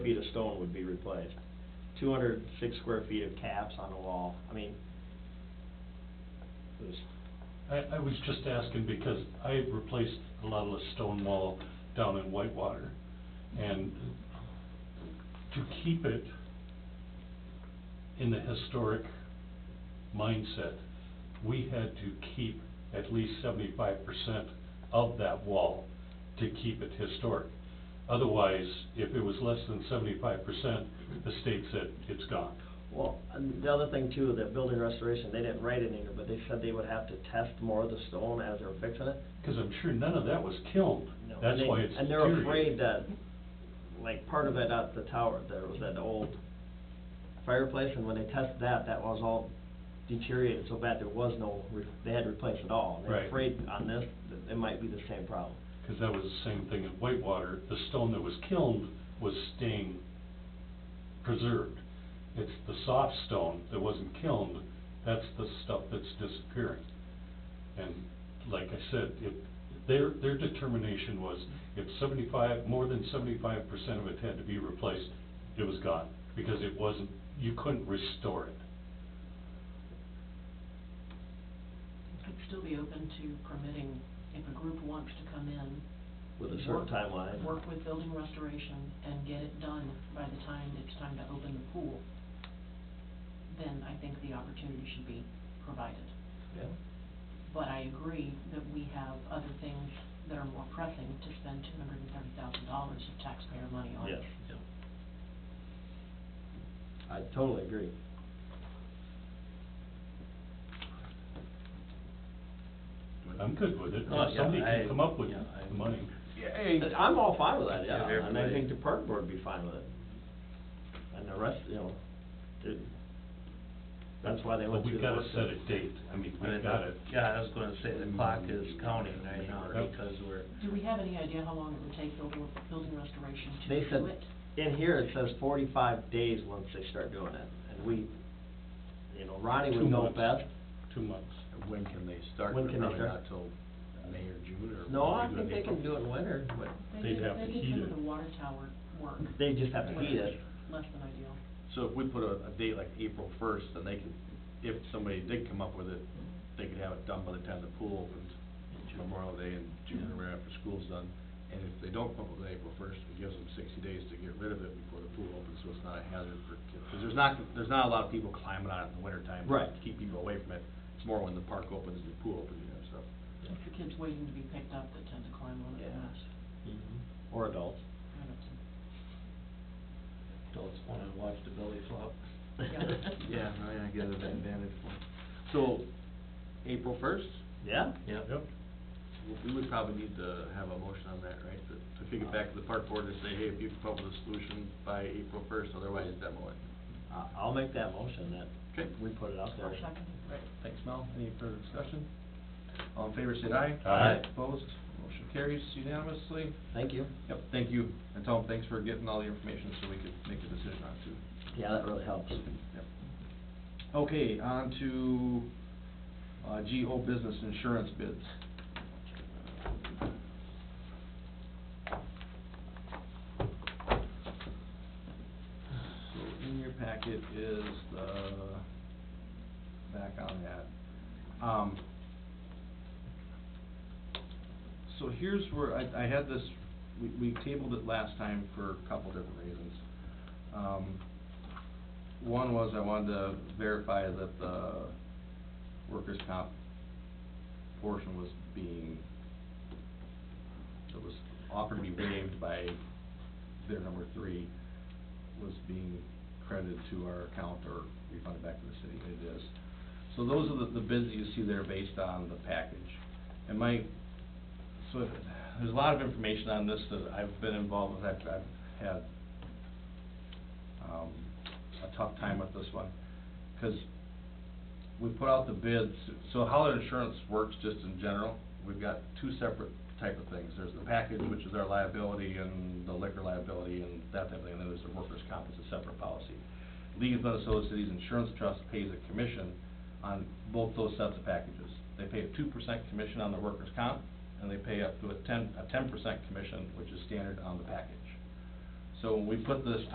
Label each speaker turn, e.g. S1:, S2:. S1: stone would be replaced. Two hundred six square feet of caps on the wall, I mean, it was,
S2: I, I was just asking because I replaced a lot of the stone wall down in Whitewater. And to keep it in the historic mindset, we had to keep at least seventy-five percent of that wall to keep it historic. Otherwise, if it was less than seventy-five percent, the state said it's gone.
S1: well, and the other thing too, that building restoration, they didn't write it in here, but they said they would have to test more of the stone as they're fixing it.
S2: Cause I'm sure none of that was kilned.
S1: No, and
S2: That's
S1: they-
S2: why it's
S1: And they're
S2: deteriorated.
S1: afraid that, like, part of it at the tower, there was that old fireplace, and when they tested that, that was all deteriorated so bad, there was no, re- they had to replace it all. And They're
S2: Right.
S1: afraid on this, that it might be the same problem.
S2: Because that was the same thing at Whitewater, the stone that was kilned was staying preserved. It's the soft stone that wasn't kilned, that's the stuff that's disappearing. And like I said, if, their, their determination was if seventy-five, more than seventy-five percent of it had to be replaced, it was gone, because it wasn't, you couldn't restore it.
S3: I'd still be open to permitting, if a group wants to come in.
S1: With a certain
S3: work-
S1: timeline.
S3: Work with building restoration and get it done by the time it's time to open the pool, then I think the opportunity should be provided.
S1: Yeah.
S3: But I agree that we have other things that are more pressing to spend two hundred and thirty thousand dollars of taxpayer money on.
S1: Yes. I totally agree.
S2: I'm good with it,
S4: Oh,
S2: if
S4: yeah,
S2: somebody
S4: I-
S2: can come up with
S4: yeah, I-
S2: the money.
S1: And I'm all fine with that, yeah,
S4: Yeah,
S1: and I
S4: everybody-
S1: think the park board would be fine with it. And the rest, you know, it- that's why they
S2: But
S1: went through
S2: we've
S1: the
S2: gotta
S1: work.
S2: set a date, I mean, we've
S4: Right.
S2: gotta
S4: Yeah, I was gonna say, the clock is counting right now
S2: Yep.
S4: because we're,
S3: Do we have any idea how long it would take building, building restoration to
S1: They
S3: do
S1: said,
S3: it?
S1: in here, it says forty-five days once they start doing it, and we, you know, Ronnie
S2: Two
S1: would know
S2: months.
S1: best.
S2: two months.
S5: When can they start?
S1: When can they
S5: Probably
S1: start?
S5: not till May or June or.
S1: No, I
S5: maybe
S1: think they
S5: April.
S1: can do it in winter, but
S3: They
S2: They'd
S3: did-
S2: have to heat
S3: They did some of
S2: it.
S3: the water tower work.
S1: they just have to heat it.
S3: Less than ideal.
S5: So if we put a, a date like April first, then they could, if somebody did come up with it, they could have it done by the time the pool opens, Memorial Day in June or right after school's done. And if they don't come up with it April first, it gives them sixty days to get rid of it before the pool opens, so it's not a hazard for kids. Because there's not, there's not a lot of people climbing on it in the wintertime. to
S1: Right.
S5: Keep people away from it. It's more when the park opens and the pool opens, you know, so.
S3: It's the kids waiting to be picked up that tend to climb on it the
S5: Yeah.
S3: most.
S1: Mm-hmm. Or adults.
S3: I don't see-
S4: adults wanna watch the belly flop.
S5: Yeah, I mean, I get it, that vantage point. So, April first,
S1: Yeah?
S4: Yep.
S2: Yep.
S5: we would probably need to have a motion on that, right? To- To kick it back to the park board and say, hey, if you come up with a solution by April first, otherwise demo it.
S1: I- I'll make that motion that
S5: Okay.
S1: we put it out there.
S3: I'll second it.
S5: Thanks, Mel. Any further discussion? All in favor, say aye.
S2: Aye. Aye.
S5: Opposed? Motion carries unanimously.
S1: Thank you.
S5: Yep, thank you. And Tom, thanks for getting all the information so we could make a decision on it too.
S1: Yeah, that really helps.
S5: Yep. Okay, on to, uh, GO business insurance bids. So in your packet is the, back on that. Um, so here's where I, I had this, we, we tabled it last time for a couple different reasons. Um, one was I wanted to verify that the workers' comp portion was being, that was offered to be waived by their number three, was being credited to our account or refunded back to the city, and it is. So those are the, the bids that you see there based on the package. And my, so there's a lot of information on this that I've been involved with, I've, I've had, um, a tough time with this one, because we put out the bids, so how their insurance works just in general, we've got two separate type of things. There's the package, which is our liability and the liquor liability and that type of thing, and then there's the workers' comp, it's a separate policy. League of Minnesota Cities Insurance Trust pays a commission on both those sets of packages. They pay a two percent commission on the workers' comp, and they pay up to a ten, a ten percent commission, which is standard on the package. So when we put this